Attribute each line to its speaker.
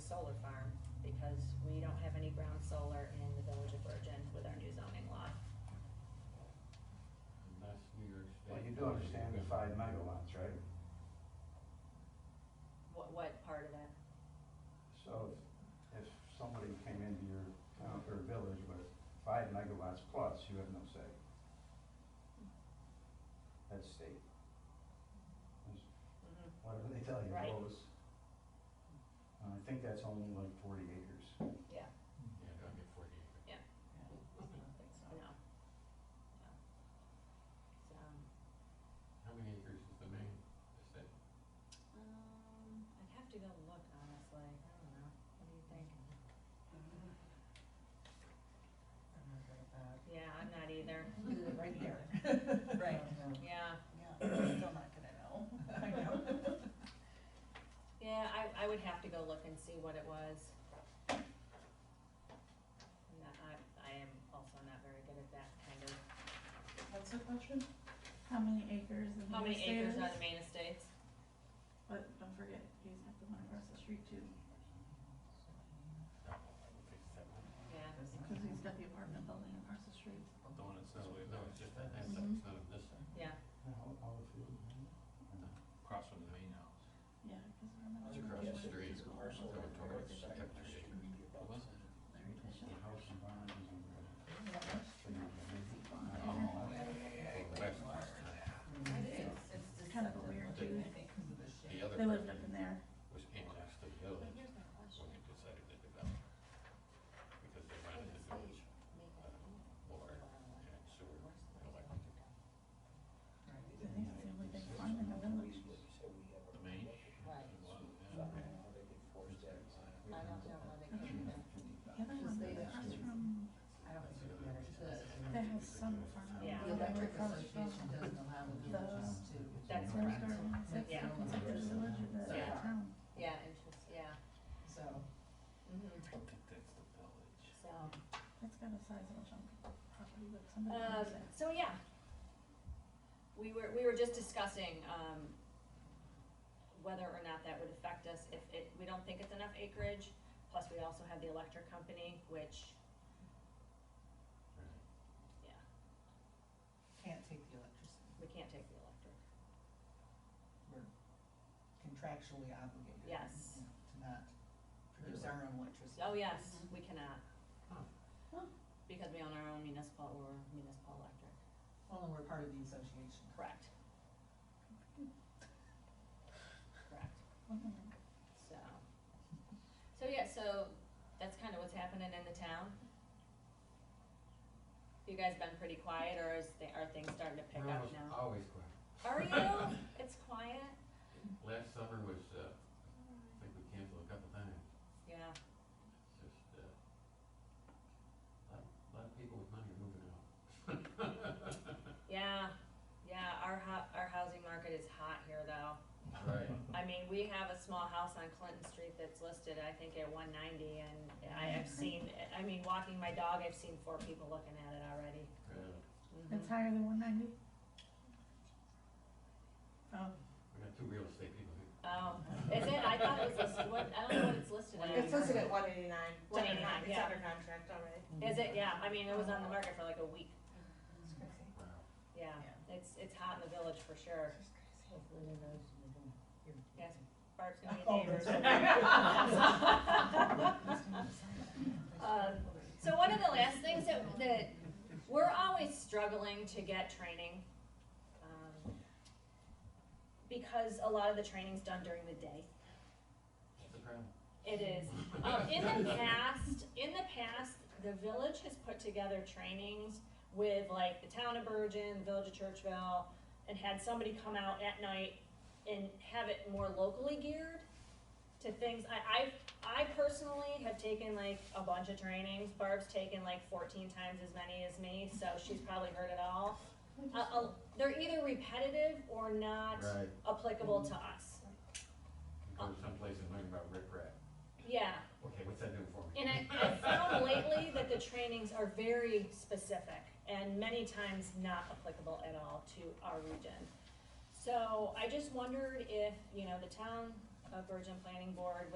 Speaker 1: solar farm, because we don't have any ground solar in the village of Virgin with our new zoning law.
Speaker 2: And that's New York State.
Speaker 3: Well, you do understand the five megawatts, right?
Speaker 1: What, what part of that?
Speaker 3: So if somebody came into your town or village with five megawatts plus, you have no say. That's state. That's
Speaker 1: Mm-hmm.
Speaker 3: Whatever they tell you,
Speaker 1: Right.
Speaker 3: goes. And I think that's only like forty acres.
Speaker 1: Yeah,
Speaker 2: Yeah, don't get forty acres.
Speaker 1: no. No. So,
Speaker 2: How many acres is the main estate?
Speaker 1: um, I'd have to go look, honestly, I don't know, what do you think?
Speaker 4: I'm not good at that.
Speaker 1: Yeah, I'm not either,
Speaker 4: Do it right there.
Speaker 1: Right.
Speaker 4: Um,
Speaker 1: yeah.
Speaker 4: Yeah, I'm still not gonna know. I know.
Speaker 1: Yeah, I, I would have to go look and see what it was. I'm not- I, I am also not very good at that kind of,
Speaker 4: What's the question?
Speaker 5: How many acres of
Speaker 1: how many
Speaker 5: these
Speaker 1: acres are
Speaker 5: stairs?
Speaker 1: the main estates?
Speaker 5: But don't forget, he's got the one across the street too,
Speaker 1: Yeah,
Speaker 5: because he's got the apartment building across the street.
Speaker 2: The one that's not, no, it's just that, that's,
Speaker 5: Mhm.
Speaker 2: it's not in this side,
Speaker 1: yeah,
Speaker 3: All, all the field, right?
Speaker 2: across from the main house.
Speaker 5: Yeah, because remember.
Speaker 2: It's across the street.
Speaker 5: There
Speaker 2: So we're towards the sector acre. What was it?
Speaker 5: it is.
Speaker 3: The house environment is in
Speaker 2: Oh,
Speaker 3: the.
Speaker 2: West
Speaker 4: It
Speaker 2: side.
Speaker 4: is.
Speaker 5: It's kind of weird too.
Speaker 4: I think because of the
Speaker 2: The
Speaker 4: shape.
Speaker 2: other
Speaker 5: They lived up in
Speaker 2: property
Speaker 5: there.
Speaker 2: was annexed to the village when they decided to develop. Because they ran into village, uh, water and sewer and electric.
Speaker 5: I think it's the only big farm in the village.
Speaker 2: The main?
Speaker 6: Right.
Speaker 2: Yeah.
Speaker 6: I don't know how they came to that.
Speaker 5: Yeah, there was the across from,
Speaker 4: I don't think it matters.
Speaker 5: they have some farm.
Speaker 1: Yeah.
Speaker 6: The electric association doesn't allow the villages to.
Speaker 1: That's
Speaker 5: It's
Speaker 1: correct.
Speaker 5: like,
Speaker 1: Yeah.
Speaker 5: it's like there's a village in the
Speaker 1: Yeah.
Speaker 5: town.
Speaker 1: yeah, interest, yeah,
Speaker 6: So,
Speaker 1: mhm,
Speaker 2: I don't think that's the village.
Speaker 1: so.
Speaker 5: That's got a sizable chunk of property, but somebody
Speaker 1: Um,
Speaker 5: owns it.
Speaker 1: so yeah. We were, we were just discussing, um, whether or not that would affect us if it, we don't think it's enough acreage. Plus, we also have the electric company, which, yeah,
Speaker 6: can't take the electricity,
Speaker 1: we can't take the electric.
Speaker 6: we're contractually obligated.
Speaker 1: Yes.
Speaker 6: you know, To not produce our own electricity.
Speaker 1: Oh, yes, we cannot.
Speaker 2: Huh.
Speaker 5: Huh.
Speaker 1: Because we own our own municipal or municipal electric.
Speaker 6: Well, and we're part of the association.
Speaker 1: Correct. Correct, so. So, yeah, so that's kind of what's happening in the town. You guys been pretty quiet or is, the- are things starting to pick
Speaker 2: We're
Speaker 1: up
Speaker 2: almost
Speaker 1: now?
Speaker 2: Always quiet.
Speaker 1: Are you? It's quiet?
Speaker 2: Last summer was, uh, I think we canceled a couple times,
Speaker 1: Yeah,
Speaker 2: it's just, uh, a lot, a lot of people with money are moving out.
Speaker 1: yeah, yeah, our ho- our housing market is hot here though.
Speaker 2: Right.
Speaker 1: I mean, we have a small house on Clinton Street that's listed, I think, at one ninety, and I have seen, I mean, walking my dog, I've seen four people looking at it already.
Speaker 2: Yeah.
Speaker 1: Mhm.
Speaker 5: It's higher than one ninety? Oh,
Speaker 2: We got two real estate people here.
Speaker 1: Oh, is it? I thought it was listed, what, I don't know what it's listed as.
Speaker 7: It's listed at one eighty-nine.
Speaker 1: 189,
Speaker 7: It's
Speaker 1: yeah.
Speaker 7: under contract already.
Speaker 1: Is it? Yeah, I mean, it was on the market for like a week,
Speaker 6: It's crazy.
Speaker 2: Wow.
Speaker 1: yeah. It's, it's hot in the village for sure.
Speaker 6: It's crazy. Hopefully they know who's in the room. Here.
Speaker 1: Yes. Bart's gonna be
Speaker 6: Oh,
Speaker 1: neighbors. Um, So one of the last things that, that, we're always struggling to get training. um, Because a lot of the training's done during the day.
Speaker 2: That's a problem.
Speaker 1: It is. Um, in the past, in the past, the village has put together trainings with like the town of Bergen, the village of Churchville, and had somebody come out at night and have it more locally geared to things. I, I, I personally have taken like a bunch of trainings. Barb's taken like fourteen times as many as me, so she's probably heard it all. Uh, uh, they're either repetitive or not
Speaker 2: Right.
Speaker 1: applicable to us.
Speaker 2: Go to someplace and learn about riprap.
Speaker 1: Yeah.
Speaker 2: Okay, what's that doing for me?
Speaker 1: And I, I found lately that the trainings are very specific and many times not applicable at all to our region. So I just wondered if, you know, the town of Virgin Planning Board